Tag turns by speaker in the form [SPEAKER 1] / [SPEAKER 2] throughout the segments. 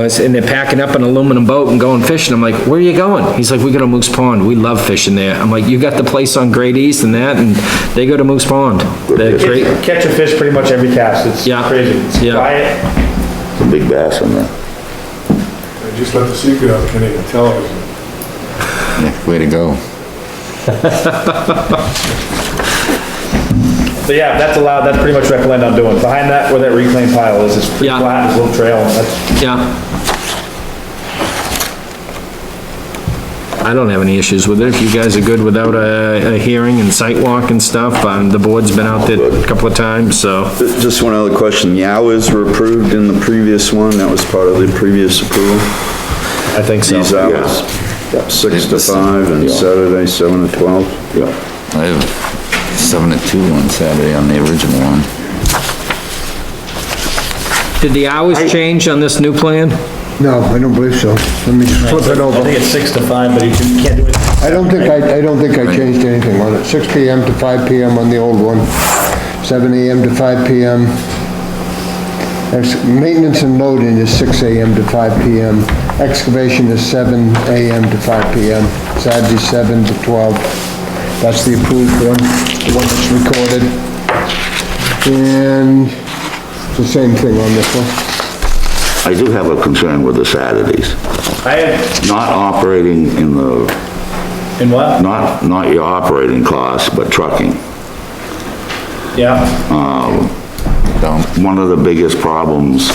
[SPEAKER 1] And they're packing up an aluminum boat and going fishing. I'm like, where are you going? He's like, we go to Moose Pond. We love fishing there. I'm like, you got the place on Great East and that, and they go to Moose Pond. They're great.
[SPEAKER 2] Catch catch a fish pretty much every cast, it's
[SPEAKER 1] Yeah.
[SPEAKER 2] crazy. It's
[SPEAKER 1] Yeah.
[SPEAKER 2] Quiet,
[SPEAKER 3] It's a big bass on there.
[SPEAKER 4] I just let the secret out, can't even tell it.
[SPEAKER 3] Yeah, Way to go.
[SPEAKER 2] so yeah, that's allowed, that's pretty much what I plan on doing, behind that, where that reclaimed pile is, it's pretty
[SPEAKER 1] Yeah.
[SPEAKER 2] flat, there's a little trail, that's,
[SPEAKER 1] Yeah. I don't have any issues with it. If you guys are good without a, a hearing and site walk and stuff, um, the board's been out there a couple of times, so.
[SPEAKER 5] Just one other question. The hours were approved in the previous one. That was part of the previous approval.
[SPEAKER 1] I think so.
[SPEAKER 5] These hours, six to five and Saturday, seven to 12.
[SPEAKER 3] Yeah. I have seven to two on Saturday on the original one.
[SPEAKER 1] Did the hours change on this new plan?
[SPEAKER 6] No, I don't believe so. Let me just flip it
[SPEAKER 2] I
[SPEAKER 6] over.
[SPEAKER 2] think it's six to five, but you can- you can't do it.
[SPEAKER 6] I don't think I, I don't think I changed anything on it. 6 PM to 5 PM on the old one, 7 AM to 5 PM. Ex- Maintenance and loading is 6 AM to 5 PM. Excavation is 7 AM to 5 PM. Saturday, 7 to 12. That's the approved one, the one that's recorded. And it's the same thing on this one.
[SPEAKER 3] I do have a concern with the Saturdays.
[SPEAKER 2] I have,
[SPEAKER 3] Not operating in the,
[SPEAKER 2] in what?
[SPEAKER 3] not, not your operating costs, but trucking.
[SPEAKER 2] Yeah,
[SPEAKER 3] One of the biggest problems,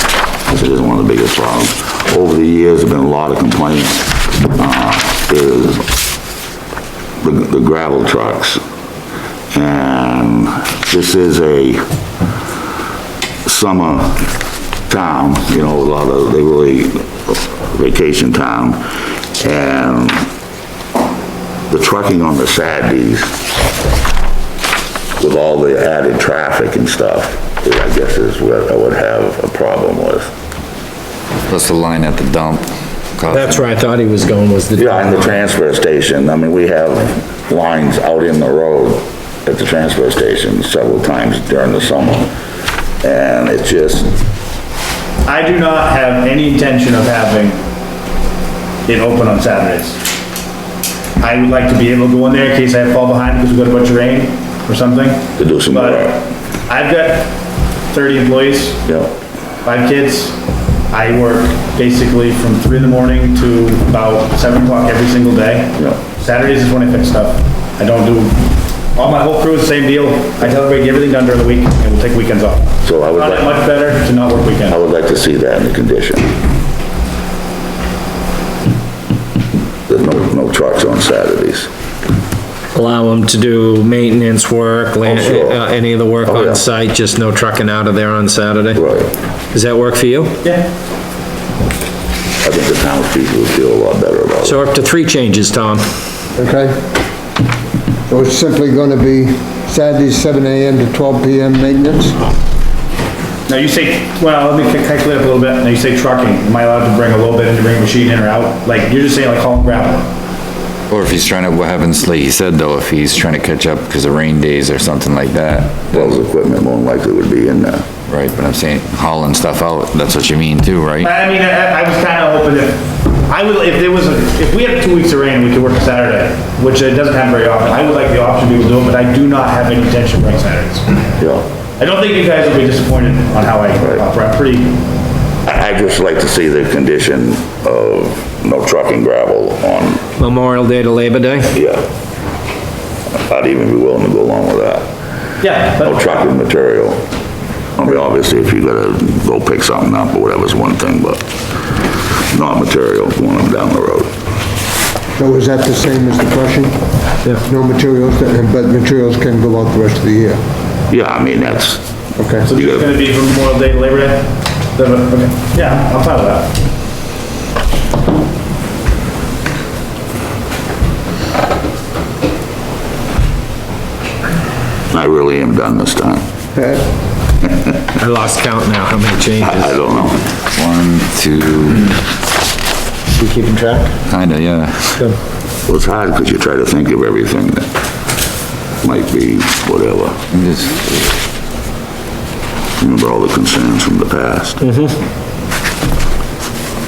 [SPEAKER 3] this is one of the biggest problems, over the years, there've been a lot of complaints, uh, is the the gravel trucks. And this is a summer town, you know, a lot of, they really, vacation town. And the trucking on the Saturdays with all the added traffic and stuff, I guess is what I would have a problem with.
[SPEAKER 7] Plus the line at the dump.
[SPEAKER 1] That's where I thought he was going, was the.
[SPEAKER 3] Yeah, and the transfer station, I mean, we have lines out in the road at the transfer station several times during the summer. And it's just,
[SPEAKER 2] I do not have any intention of having it open on Saturdays. I would like to be able to go in there in case I fall behind because we've got a bunch of rain or something.
[SPEAKER 3] To do some
[SPEAKER 2] But
[SPEAKER 3] work.
[SPEAKER 2] I've got thirty employees,
[SPEAKER 3] you know,
[SPEAKER 2] five kids. I work basically from three in the morning to about seven o'clock every single day.
[SPEAKER 3] Yeah.
[SPEAKER 2] Saturdays is when I fix stuff. I don't do, all my whole crew is the same deal. I tell everybody, get everything done during the week and we'll take weekends off.
[SPEAKER 3] So I would
[SPEAKER 2] Found it
[SPEAKER 3] like-
[SPEAKER 2] Much better to not work weekends.
[SPEAKER 3] I would like to see that in the condition. There's no, no trucks on Saturdays.
[SPEAKER 1] Allow him to do maintenance work, land,
[SPEAKER 3] Oh, sure.
[SPEAKER 1] uh, any of the work
[SPEAKER 3] Oh, yeah.
[SPEAKER 1] on site, just no trucking out of there on Saturday?
[SPEAKER 3] Right.
[SPEAKER 1] Does that work for you?
[SPEAKER 2] Yeah,
[SPEAKER 3] I think the townspeople would feel a lot better about it.
[SPEAKER 1] So up to three changes, Tom.
[SPEAKER 6] Okay? So it's simply gonna be Saturday, 7 AM to 12 PM maintenance?
[SPEAKER 2] now you say, well, let me ca- calculate up a little bit, now you say trucking, am I allowed to bring a little bit, in to bring a machine in or out? Like, you're just saying like haul gravel,
[SPEAKER 7] Or if he's trying to, what happens, like he said though, if he's trying to catch up because of rain days or something like that,
[SPEAKER 3] Those equipment more than likely would be in there.
[SPEAKER 7] right? But I'm saying hauling stuff out, that's what you mean too, right?
[SPEAKER 2] I I mean, I, I was kinda hoping if, I would, if there was, a if we had two weeks of rain, we could work Saturday, which it doesn't happen very often, I would like the option to be able to do it, but I do not have any intention of running Saturdays.
[SPEAKER 3] Yeah.
[SPEAKER 2] I don't think you guys will be disappointed on how I operate, I'm pretty,
[SPEAKER 3] I I'd just like to see the condition of no trucking gravel on,
[SPEAKER 1] Memorial Day to Labor Day?
[SPEAKER 3] yeah. I'd even be willing to go along with that.
[SPEAKER 2] yeah,
[SPEAKER 3] No
[SPEAKER 2] but
[SPEAKER 3] trucking material. I mean, obviously, if you gotta go pick something up or whatever's one thing, but not material going up down the road.
[SPEAKER 6] So is that the same as the crushing?
[SPEAKER 1] Yeah.
[SPEAKER 6] No materials, but materials can go out the rest of the year,
[SPEAKER 3] Yeah, I mean, that's,
[SPEAKER 6] okay?
[SPEAKER 2] so it's gonna be from Memorial Day to Labor Day? Is that what- okay. Yeah, I'm fine with that.
[SPEAKER 3] I really am done this time.
[SPEAKER 1] I lost count now, how many
[SPEAKER 3] I
[SPEAKER 1] changes?
[SPEAKER 3] don't know.
[SPEAKER 7] One, two,
[SPEAKER 1] You keeping track?
[SPEAKER 7] kinda, yeah.
[SPEAKER 1] Good.
[SPEAKER 3] Well, it's hard because you try to think of everything that might be whatever.
[SPEAKER 7] I'm just-
[SPEAKER 3] Remember all the concerns from the past. Mm-hmm.